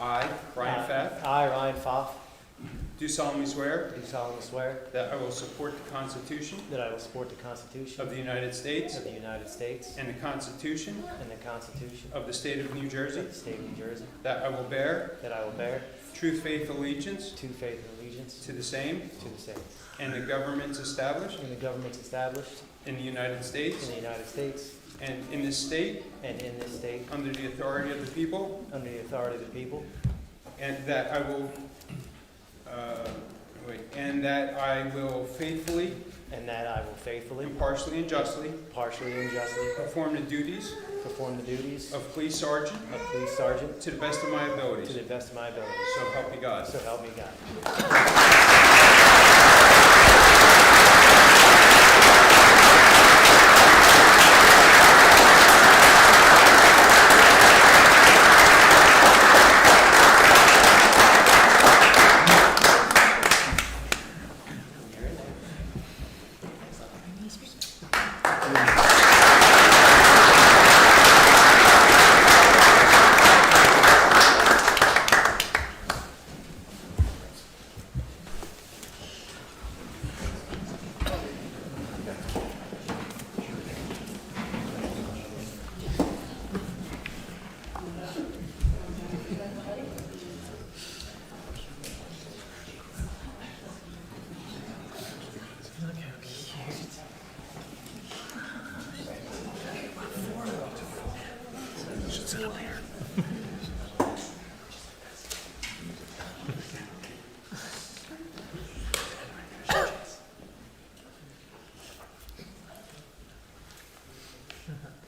I, Uh, Brian Pfaff, I, Ryan Pfaff, do solemnly swear do solemnly swear that I will support the Constitution that I will support the Constitution of the United States of the United States and the Constitution and the Constitution of the State of New Jersey, of the State of New Jersey, that I will bear that I will bear true faith allegiance true faith and allegiance to the same to the same and the governments established and the governments established in the United in States the United States and in this state and in this state under the authority of the people, under the authority of the people, and that I will, uh, wait, and that I will faithfully, and that I will faithfully, impartially, and justly partially, and justly perform the duties perform the duties of police sergeant of police sergeant to the best of my to abilities. the best of my ability. So help me God. So help me God.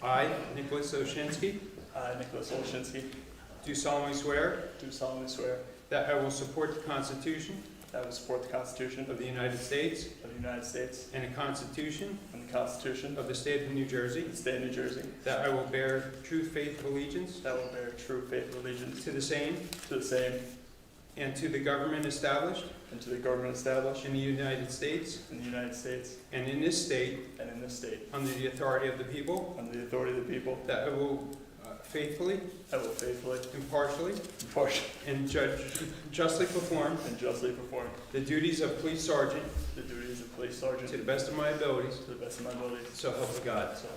I, Nicholas Oshinsky, I, Uh, Nicholas Olshinsky, do solemnly swear do solemnly swear that I will support the Constitution that I will support the Constitution of the United States of the United States and the Constitution and the Constitution of the State of New Jersey, of the State of New Jersey, that I will bear true faith allegiance that I will bear true faith and allegiance to the same to the same and to the government established and to the government established in the United States in the United States and in this state and in this state, under the authority of the people, under the authority of the people, that I will uh, faithfully, I will faithfully, impartially, impartially, and judge, justly perform and justly perform the duties of police sergeant the duties of police to the sergeant best of my abilities, to the best of my abilities. so help me God. So,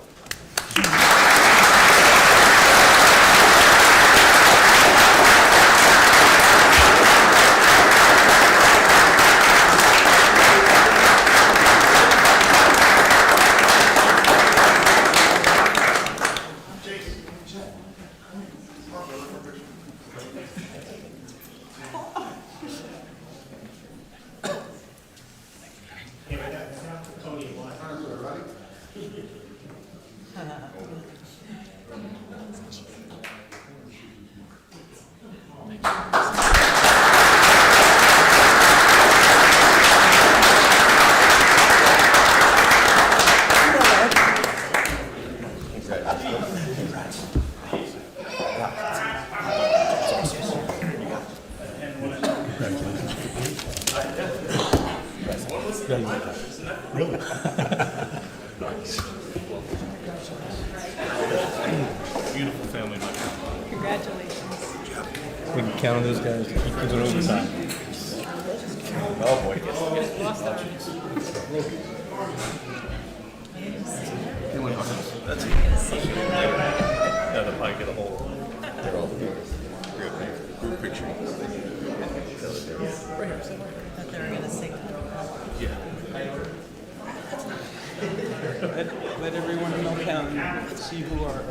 Beautiful family life. Congratulations. We can count on those guys. Keep doing overtime. Oh boy. That's it. Now they'll probably get a hold. They're all together. Group, group picture. That they're gonna sing. Yeah. Let, let everyone come down and see who are.